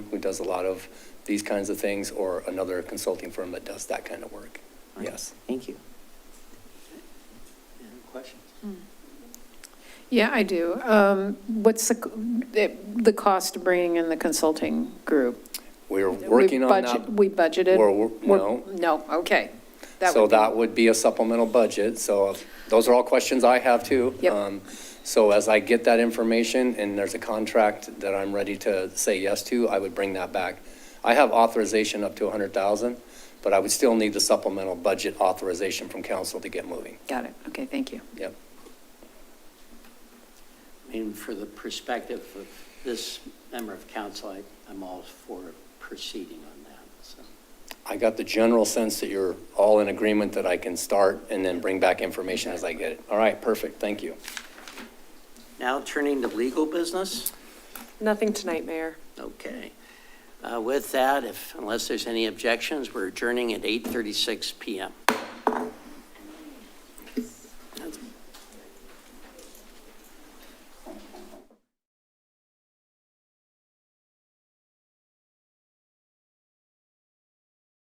who does a lot of these kinds of things, or another consulting firm that does that kind of work. Okay, Yes. Thank you. Any other questions? Yeah, I do. Um, What's the, c- it- the cost of bringing in the consulting group? We're We working on budget- that. We budgeted? We're wor- We're- no. No, okay. So would be- that would be a supplemental budget, so uh, those are all questions I have too. Yep. Um, So as I get that information and there's a contract that I'm ready to say yes to, I would bring that back. I have authorization up to 100,000, but I would still need the supplemental budget authorization from council to get moving. Got it. Okay, thank you. Yep. And for the perspective of this member of council, I- I'm all for proceeding on that, so. I got the general sense that you're all in agreement that I can start and then bring back information as I get it. All right, perfect, thank you. Now turning to legal business, Nothing tonight, Mayor. okay. Uh, With that, if, unless there's any objections, we're adjourning at 8:36 PM.